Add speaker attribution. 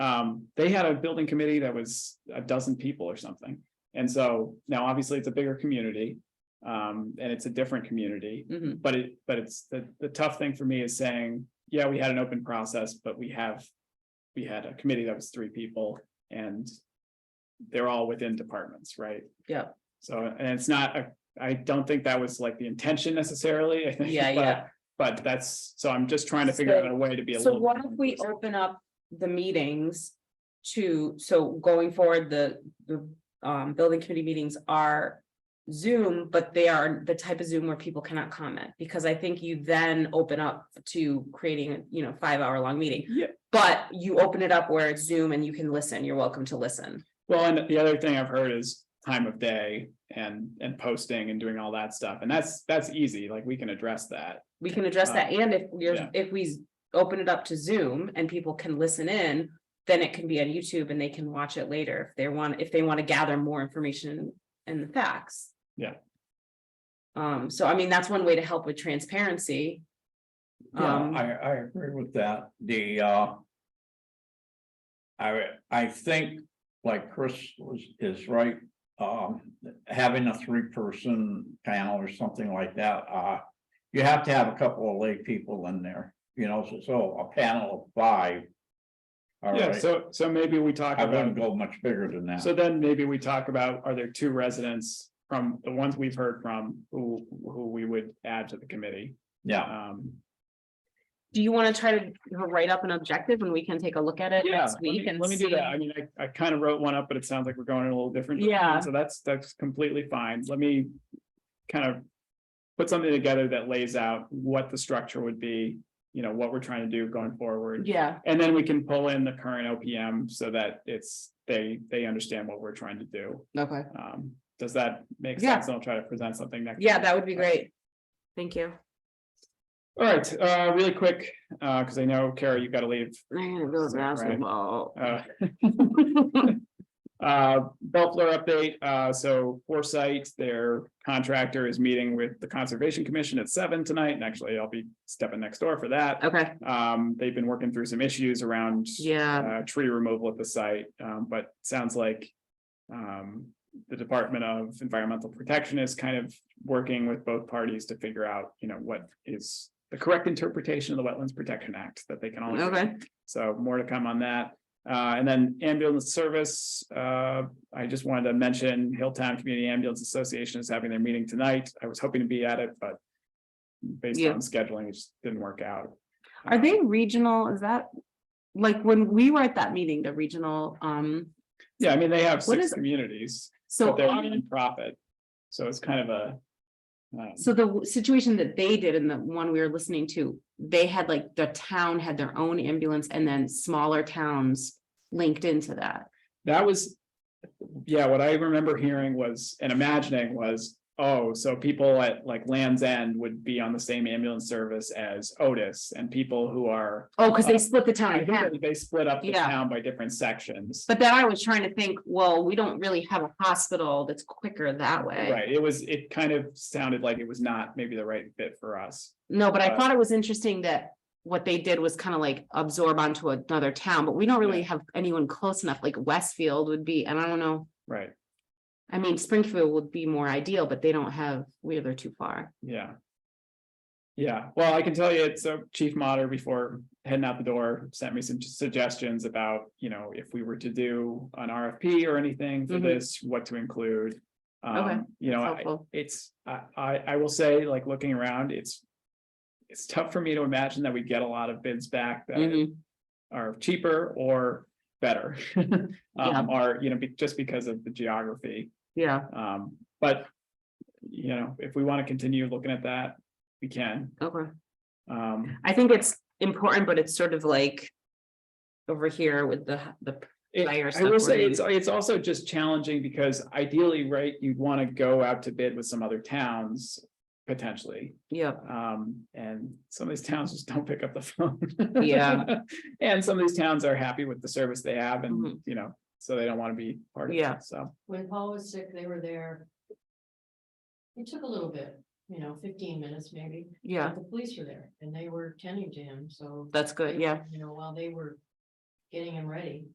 Speaker 1: Um, they had a building committee that was a dozen people or something. And so now obviously it's a bigger community. Um, and it's a different community,
Speaker 2: Mhm.
Speaker 1: but it, but it's the, the tough thing for me is saying, yeah, we had an open process, but we have. We had a committee that was three people and. They're all within departments, right?
Speaker 2: Yeah.
Speaker 1: So, and it's not, a- I don't think that was like the intention necessarily, I think.
Speaker 2: Yeah,
Speaker 1: but-
Speaker 2: yeah.
Speaker 1: But that's, so I'm just trying to figure out a way to be a
Speaker 2: So
Speaker 1: little.
Speaker 2: what
Speaker 1: bit
Speaker 2: if
Speaker 1: more
Speaker 2: we
Speaker 1: inclusive.
Speaker 2: open up the meetings to, so going forward, the, the, um, building committee meetings are. Zoom, but they are the type of Zoom where people cannot comment, because I think you then open up to creating, you know, five hour long meeting.
Speaker 1: Yeah.
Speaker 2: But you open it up where it's Zoom and you can listen, you're welcome to listen.
Speaker 1: Well, and the other thing I've heard is time of day and, and posting and doing all that stuff. And that's, that's easy. Like we can address that.
Speaker 2: We can address that, and if we're,
Speaker 1: Um, yeah.
Speaker 2: if we open it up to Zoom and people can listen in. Then it can be on YouTube and they can watch it later if they want, if they want to gather more information and the facts.
Speaker 1: Yeah.
Speaker 2: Um, so I mean, that's one way to help with transparency.
Speaker 3: Yeah,
Speaker 2: Um,
Speaker 3: I, I agree with that, the, uh. I, I think, like Chris was, is right, um, having a three-person panel or something like that, uh. You have to have a couple of lay people in there, you know, so, so a panel of five. All
Speaker 1: Yeah,
Speaker 3: right,
Speaker 1: so, so maybe we talk
Speaker 3: I wouldn't
Speaker 1: about,
Speaker 3: go much bigger than that.
Speaker 1: so then maybe we talk about, are there two residents from the ones we've heard from who, who we would add to the committee?
Speaker 3: Yeah,
Speaker 1: Um,
Speaker 2: do you want to try to write up an objective and we can take a look at it
Speaker 1: yeah,
Speaker 2: next
Speaker 1: let me,
Speaker 2: week and
Speaker 1: let me do
Speaker 2: see?
Speaker 1: that. I mean, I, I kind of wrote one up, but it sounds like we're going in a little different. direction,
Speaker 2: Yeah.
Speaker 1: So that's, that's completely fine. Let me kind of put something together that lays out what the structure would be, you know, what we're trying to do going forward.
Speaker 2: Yeah,
Speaker 1: And then we can pull in the current OPM so that it's, they, they understand what we're trying to do.
Speaker 2: okay.
Speaker 1: Um, does that make
Speaker 2: Yeah.
Speaker 1: sense? And I'll try to present something next.
Speaker 2: Yeah,
Speaker 1: time.
Speaker 2: that would be great. Thank you.
Speaker 1: All right, uh, really quick, uh, because I know Kara, you've got to leave.
Speaker 2: I'm gonna
Speaker 1: go basketball. Uh, Uh, Bellflower update, uh, so Foresight, their contractor is meeting with the Conservation Commission at seven tonight, and actually I'll be stepping next door for that.
Speaker 2: Okay,
Speaker 1: Um, they've been working through some issues around
Speaker 2: yeah,
Speaker 1: uh, tree removal at the site, um, but sounds like um, the Department of Environmental Protection is kind of working with both parties to figure out, you know, what is the correct interpretation of the Wetlands Protection Act that they can all. agree on.
Speaker 2: okay.
Speaker 1: So more to come on that. Uh, and then ambulance service, uh, I just wanted to mention Hilltown Community Ambulance Association is having their meeting tonight. I was hoping to be at it, but based
Speaker 2: Yeah.
Speaker 1: on scheduling, it just didn't work out.
Speaker 2: Are
Speaker 1: Um,
Speaker 2: they regional? Is that? Like when we were at that meeting, the regional, um,
Speaker 1: Yeah, I mean, they have
Speaker 2: What
Speaker 1: six
Speaker 2: is-
Speaker 1: communities,
Speaker 2: so,
Speaker 1: but they're
Speaker 2: on-
Speaker 1: nonprofit. So it's kind of a um,
Speaker 2: so the w- situation that they did in the one we were listening to, they had like the town had their own ambulance and then smaller towns linked into that.
Speaker 1: that was, yeah, what I remember hearing was and imagining was, oh, so people at like Land's End would be on the same ambulance service as Otis and people who are
Speaker 2: Oh, because
Speaker 1: Uh,
Speaker 2: they split the town
Speaker 1: I
Speaker 2: in
Speaker 1: think
Speaker 2: half.
Speaker 1: that they split up the
Speaker 2: Yeah.
Speaker 1: town by different sections.
Speaker 2: But then I was trying to think, well, we don't really have a hospital that's quicker that way.
Speaker 1: Right, it was, it kind of sounded like it was not maybe the right fit for us.
Speaker 2: No, but I
Speaker 1: Uh,
Speaker 2: thought it was interesting that what they did was kind of like absorb onto another town, but we don't really have anyone close enough, like Westfield would be, and I don't know.
Speaker 1: Right,
Speaker 2: I mean, Springfield would be more ideal, but they don't have, we they're too far.
Speaker 1: yeah. Yeah, well, I can tell you, it's so Chief Mater before heading out the door sent me some suggestions about, you know, if we were to do an RFP or anything for
Speaker 2: Mhm.
Speaker 1: this, what to include.
Speaker 2: Okay,
Speaker 1: Um, you know,
Speaker 2: That's
Speaker 1: I-
Speaker 2: helpful.
Speaker 1: it's, I, I, I will say, like, looking around, it's. It's tough for me to imagine that we get a lot of bids back that
Speaker 2: Mhm.
Speaker 1: are cheaper or better.
Speaker 2: Yeah.
Speaker 1: Um, or, you know, be, just because of the geography,
Speaker 2: Yeah,
Speaker 1: um, but. You know, if we want to continue looking at that, we can,
Speaker 2: okay.
Speaker 1: um,
Speaker 2: I think it's important, but it's sort of like over here with the, the,
Speaker 1: it-
Speaker 2: Buy your
Speaker 1: I will
Speaker 2: stuff
Speaker 1: say,
Speaker 2: already.
Speaker 1: it's, it's also just challenging because ideally, right, you'd want to go out to bid with some other towns. Potentially,
Speaker 2: yeah,
Speaker 1: um, and some of these towns just don't pick up the phone.
Speaker 2: Yeah.
Speaker 1: And some of these towns are happy with the service they have and,
Speaker 2: Mhm.
Speaker 1: you know, so they don't want to be part of
Speaker 2: Yeah.
Speaker 1: it, so.
Speaker 4: when Paul was sick, they were there. It took a little bit, you know, fifteen minutes maybe,
Speaker 2: yeah,
Speaker 4: but the police were there and they were tending to him, so.
Speaker 2: that's good, yeah.
Speaker 4: You know, while they were getting him ready,